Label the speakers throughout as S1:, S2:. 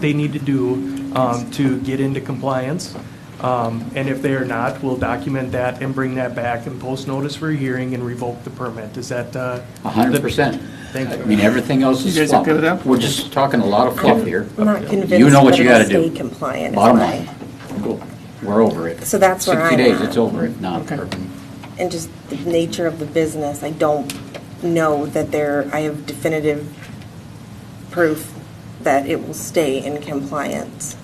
S1: they need to do um, to get into compliance. Um, And if they are not, we'll document that and bring that back and post notice for a hearing and revoke the permit. Is that? uh,
S2: A hundred percent.
S1: Thank you.
S2: I mean, everything else is
S3: You guys
S2: fluff.
S3: okay with that?
S2: We're just talking a lot of fluff here.
S4: I'm not
S2: You
S4: convinced
S2: know
S4: that
S2: what you gotta
S4: it'll
S2: do.
S4: stay compliant. is
S2: Bottom
S4: my-
S2: line. Cool. We're over it.
S4: So that's where I'm
S2: Sixty days,
S4: at.
S2: it's over it, not.
S3: Okay.
S4: And just the nature of the business, I don't know that there, I have definitive proof that it will stay in compliance.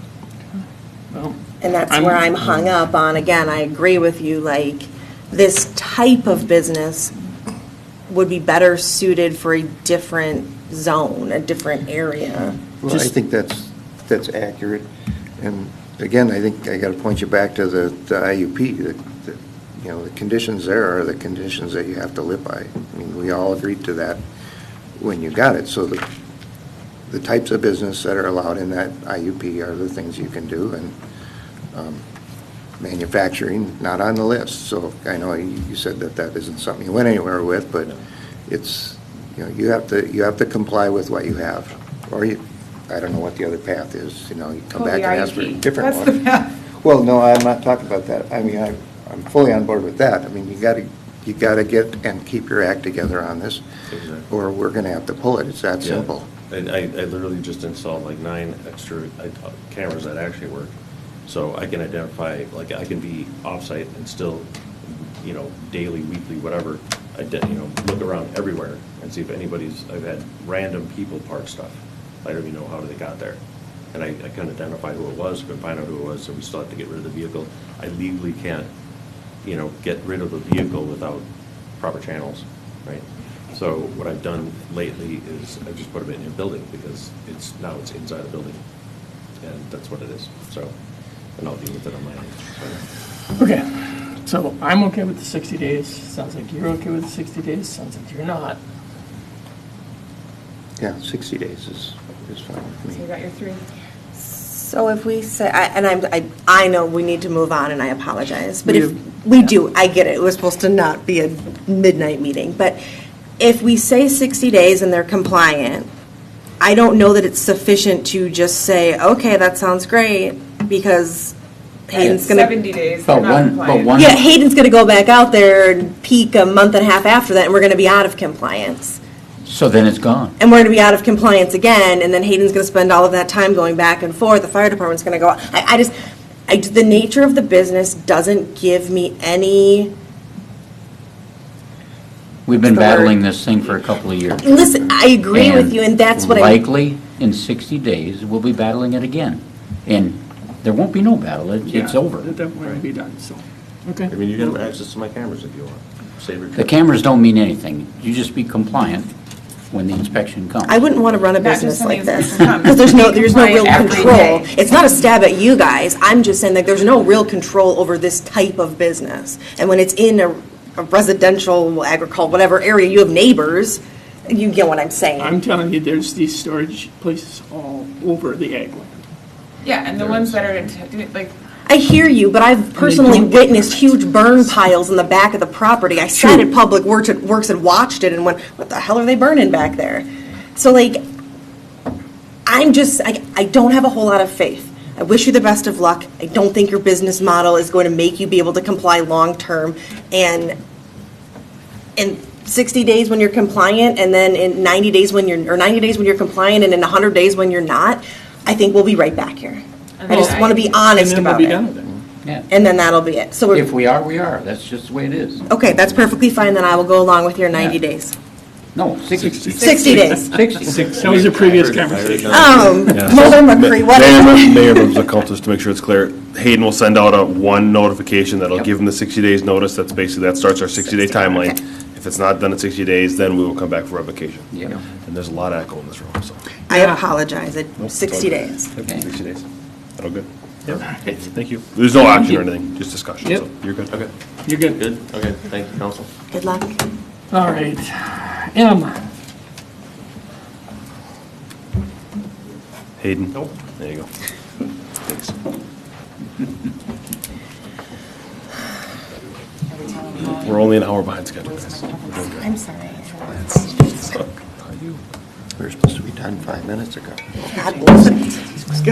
S3: Well,
S4: And that's
S3: I'm-
S4: where I'm hung up on, again, I agree with you, like, this type of business would be better suited for a different zone, a different area.
S5: Well, I think that's, that's accurate. And again, I think I got to point you back to the the IUP. the- the- You know, the conditions there are the conditions that you have to live by. I mean, we all agreed to that when you got it. So the, the types of business that are allowed in that IUP are the things you can do. And um, manufacturing, not on the list. So I know you you said that that isn't something you went anywhere with, but it's, you know, you have to, you have to comply with what you have. Or you, I don't know what the other path is, you know, you come
S6: Well,
S5: back and
S6: Oh, the E.
S5: ask for a
S6: IEP.
S5: different one. Well, no, I'm not talking about that. I mean, I- I'm fully on board with that. I mean, you gotta, you gotta get and keep your act together on this,
S7: Exactly.
S5: or we're gonna have to pull it. It's that
S7: Yeah.
S5: simple.
S7: And I, I literally just installed like nine extra I- uh, cameras that actually work. So I can identify, like, I can be off-site and still, you know, daily, weekly, whatever, I did, you know, look around everywhere and see if anybody's, I've had random people park stuff. I don't even know how they got there. And I, I couldn't identify who it was, couldn't find out who it was, so we still have to get rid of the vehicle. I legally can't, you know, get rid of the vehicle without proper channels, right? So what I've done lately is I've just put them in a building because it's, now it's inside a building. And that's what it is, so, and I'll deal with it on my own. so.
S3: Okay, so I'm okay with the 60 days. Sounds like you're okay with the 60 days. Sounds like you're not.
S5: Yeah, 60 days is, is fine
S6: So
S5: with
S6: you
S5: me.
S6: got your three.
S4: So if we say, I- and I'm, I, I know we need to move on, and I apologize, but
S3: We
S4: if,
S3: do.
S4: we do, I get it, it was supposed to not be a midnight meeting, but if we say 60 days and they're compliant, I don't know that it's sufficient to just say, okay, that sounds great, because Hayden's gonna.
S6: 70 days, they're
S2: But
S6: not
S2: one, but
S6: compliant.
S2: one.
S4: Yeah, Hayden's gonna go back out there and peak a month and a half after that, and we're gonna be out of compliance.
S2: So then it's gone.
S4: and we're going to be out of compliance again, and then Hayden's going to spend all of that time going back and forth, the fire department's going to go, I, I just, I, the nature of the business doesn't give me any,
S2: We've been
S4: The word-
S2: battling this thing for a couple of years.
S4: listen, I agree with you, and that's what I,
S2: Likely, in sixty days, we'll be battling it again. And there won't be no battle, it, it's
S3: Yeah,
S2: over.
S3: That that might be done, so, okay.
S7: I mean, you can have access to my cameras if you want. Save your.
S2: The cameras don't mean anything. You just be compliant when the inspection comes.
S4: I wouldn't want to run a
S6: Not just
S4: business
S6: when
S4: like
S6: the
S4: this.
S6: inspection comes.
S4: Because there's no, there's no
S6: Be
S4: real
S6: compliant every
S4: control.
S6: day.
S4: It's not a stab at you guys, I'm just saying, like, there's no real control over this type of business. And when it's in a a residential, agricultural, whatever area, you have neighbors, you get what I'm saying.
S3: I'm telling you, there's these storage places all over the ag land.
S6: Yeah, and the ones that are, in- like,
S4: I hear you, but I've personally
S3: don't get
S4: witnessed huge burn piles in the back of the property. I sat
S3: True.
S4: at Public Works Works and watched it and went, what the hell are they burning back there? So like, I'm just, I, I don't have a whole lot of faith. I wish you the best of luck. I don't think your business model is going to make you be able to comply long-term. And in 60 days when you're compliant, and then in 90 days when you're, or 90 days when you're compliant, and in 100 days when you're not, I think we'll be right back here. I
S6: then
S4: just want to be
S6: I-
S4: honest
S3: And then we'll
S4: about
S3: be
S4: it
S3: done with it.
S2: Yeah.
S4: and then that'll be it. So
S2: If
S4: we're,
S2: we are, we are. That's just the way it is.
S4: okay, that's perfectly fine, then I will go along with your 90
S2: Yeah.
S4: days.
S2: No, sixty.
S4: 60 days.
S2: Sixty.
S3: That was the previous conversation.
S4: Um, Mulder McCree, whatever.
S8: Mayor, Mayor of the cultist to make sure it's clear, Hayden will send out a one notification that'll give him the sixty days notice, that's basically, that starts our sixty day
S4: 60,
S8: timeline.
S4: okay.
S8: If it's not done in sixty days, then we will come back for revocation.
S2: Yeah.
S8: And there's a lot of echo in this room, so.
S4: I apologize, It-
S8: Nope, it's all
S4: 60
S8: good.
S4: days.
S8: Yep,
S2: Okay.
S8: Sixty days, that'll good.
S7: Thank you.
S8: There's no action or anything, just discussion, so
S3: Yep.
S8: you're good.
S7: Okay,
S3: You're good.
S7: good, okay, thank you, council.
S4: Good luck.
S3: All right. M,
S8: Hayden? Nope. There you go. We're only an hour behind schedule, guys.
S4: I'm sorry.
S7: We were supposed to be done five minutes ago.
S4: God bless it.